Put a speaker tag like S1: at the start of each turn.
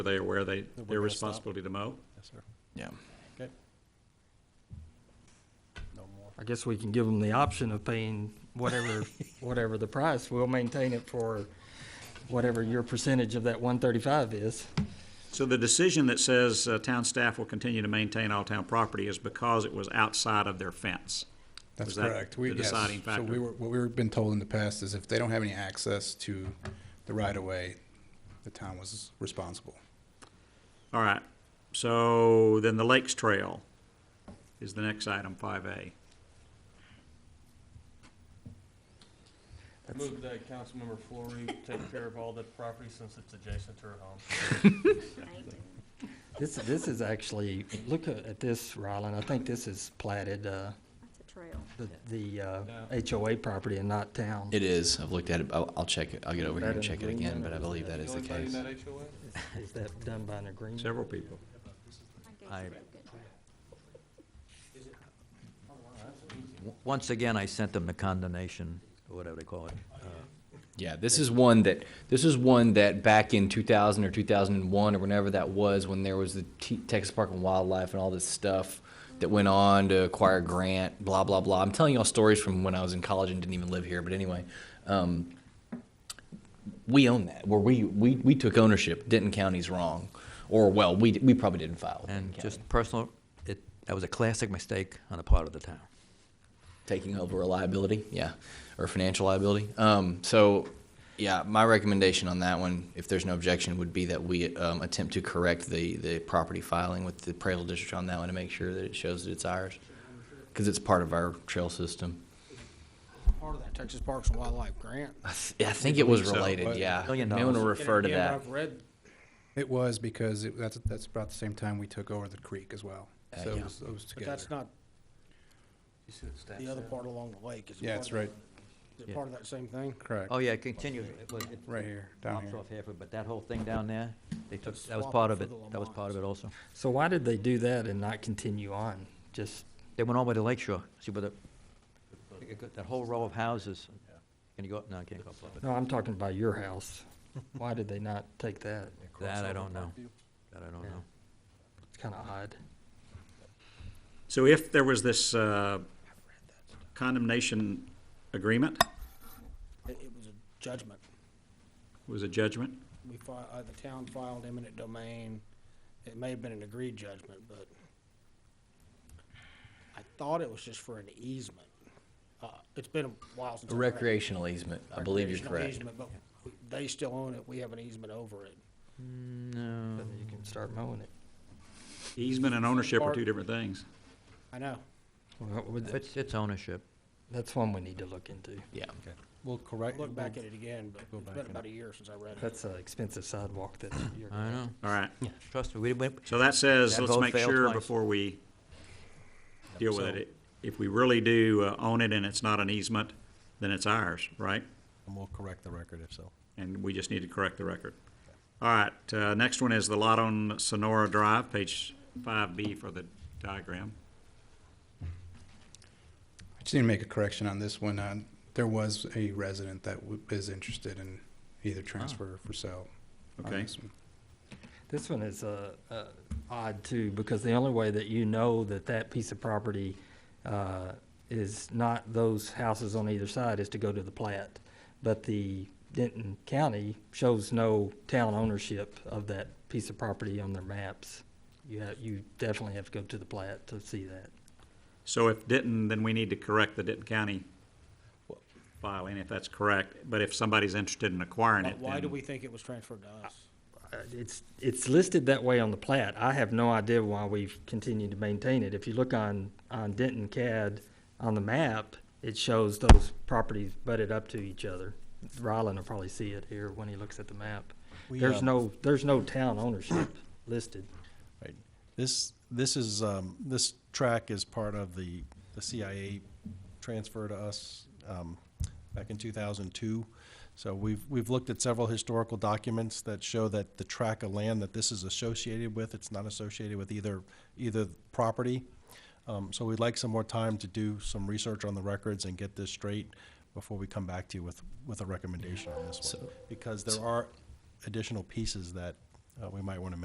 S1: Are they aware they,
S2: we're
S1: their
S2: gonna stop.
S1: responsibility to mow?
S2: Yes, sir.
S3: Yeah.
S2: Okay. No more.
S4: I guess we can give them the option of paying whatever, whatever the price. We'll maintain it for whatever your percentage of that one thirty-five is.
S1: So the decision that says uh, town staff will continue to maintain all town property is because it was outside of their fence.
S5: That's
S1: Was that
S5: correct. We-
S1: the
S5: yes.
S1: deciding
S5: So we
S1: factor?
S5: were, what we were been told in the past is if they don't have any access to the right of way, the town was responsible.
S1: All right, so then the Lakes Trail is the next item, five A.
S2: Move that Councilmember Flory take care of all the property since it's adjacent to her home.
S4: This, this is actually, look at at this, Rylan. I think this is platted, uh,
S6: That's a trail.
S4: the, the, uh,
S2: Yeah.
S4: HOA property and not town.
S3: It is. I've looked at it. I'll, I'll check it. I'll get over here
S4: that
S3: and
S4: in
S3: check it
S4: green
S3: again,
S4: then,
S3: but
S4: or
S3: I
S4: is
S3: believe
S4: that
S3: that is the case.
S2: HOA?
S4: Is that done by an agreement?
S1: Several people.
S3: I-
S7: W- Once again, I sent them the condemnation, or whatever they call it.
S3: Yeah, this is one that, this is one that back in 2000 or 2001 or whenever that was, when there was the T- Texas Park and Wildlife and all this stuff that went on to acquire Grant, blah, blah, blah. I'm telling y'all stories from when I was in college and didn't even live here, but anyway. Um, we own that, where we, we, we took ownership. Denton County's wrong. Or, well, we, we probably didn't file. with Denton
S7: And
S3: County.
S7: just personal, it, that was a classic mistake on the part of the town.
S3: taking over a liability, yeah, or financial liability. Um, so, yeah, my recommendation on that one, if there's no objection, would be that we um, attempt to correct the, the property filing with the appraisal district on that one to make sure that it shows that it's ours, because it's part of our trail system.
S8: part of that Texas Parks and Wildlife grant.
S3: I, th- I think it was
S1: so,
S3: related,
S5: but-
S3: yeah.
S7: Million
S3: May want to
S7: dollars.
S3: refer
S8: And
S3: to
S8: again,
S3: that.
S8: I've read,
S5: It was because it, that's, that's about the same time we took over the creek as well.
S3: Uh,
S5: So it
S3: yeah.
S5: was, it was
S8: but
S5: together.
S8: that's not the other part along the lake. Is it
S5: Yeah,
S8: part
S5: it's
S8: of that-
S5: right,
S8: Is
S7: Yeah.
S8: it part of that same thing?
S5: correct.
S7: Oh, yeah, it continues. It was- it
S5: Right here, down
S7: drops
S5: here.
S7: off halfway, but that whole thing down there, they took,
S8: That's
S7: that was
S8: swamp
S7: part of
S8: for
S7: it.
S8: the
S7: That was part of it also.
S4: So why did they do that and not continue on? Just,
S7: They went all the way to Lake Shore, see where the, that whole row of houses. Can you go up? No, I can't go up.
S4: no, I'm talking about your house. Why did they not take that?
S7: That I don't know. That I don't know.
S4: It's kind of odd.
S1: So if there was this uh, condemnation agreement,
S8: It, it was a judgment.
S1: was a judgment,
S8: We filed, uh, the town filed eminent domain. It may have been an agreed judgment, but I thought it was just for an easement. Uh, it's been a while since.
S3: A
S8: I read it.
S3: recreational easement, I believe you're
S8: Recreational easement,
S3: correct.
S8: But we- they still own it. We have an easement over it.
S7: No.
S4: Then you can start mowing it.
S1: easement and ownership are two different things.
S8: I know.
S4: Well, would-
S7: It's, it's ownership.
S4: That's one we need to look into.
S3: Yeah.
S5: We'll correct.
S8: Look back at it again, but
S5: Go
S8: it's
S5: back
S8: been
S5: and-
S8: about a year since I read it.
S4: That's an expensive sidewalk that you're.
S7: I know.
S1: All right,
S7: Trust me, we went,
S1: so that says,
S7: That
S1: let's
S7: vote
S1: make
S7: failed
S1: sure
S7: twice.
S1: before we deal with
S7: So-
S1: it. it. If we really do uh, own it and it's not an easement, then it's ours, right?
S2: And we'll correct the record if so.
S1: And we just need to correct the record. All right, uh, next one is the lot on Sonora Drive, page five B for the diagram.
S5: I just need to make a correction on this one. Uh, there was a resident that w- is interested in either transfer or for sale. on
S1: Ah. Okay.
S5: this one.
S4: This one is uh, uh, odd too, because the only way that you know that that piece of property uh, is not those houses on either side is to go to the plat. But the Denton County shows no town ownership of that piece of property on their maps. You have, you definitely have to go to the plat to see that.
S1: So if Denton, then we need to correct the Denton County filing, if that's correct. But if somebody's interested in acquiring
S8: Why-
S1: it,
S8: Why do we
S1: then,
S8: think it was transferred to us?
S4: Uh, It's, it's listed that way on the plat. I have no idea why we've continued to maintain it. If you look on, on Denton CAD, on the map, it shows those properties butted up to each other. Rylan will probably see it here when he looks at the map.
S2: We,
S4: There's
S2: um,
S4: no, there's no town ownership listed.
S2: Right. This, this is, um, this track is part of the, the CIA transfer to us, um, back in two thousand two. So we've, we've looked at several historical documents that show that the track of land that this is associated with, it's not associated with either, either property. Um, so we'd like some more time to do some research on the records and get this straight before we come back to you with, with a recommendation on this one. Because there are additional pieces that uh, we might want to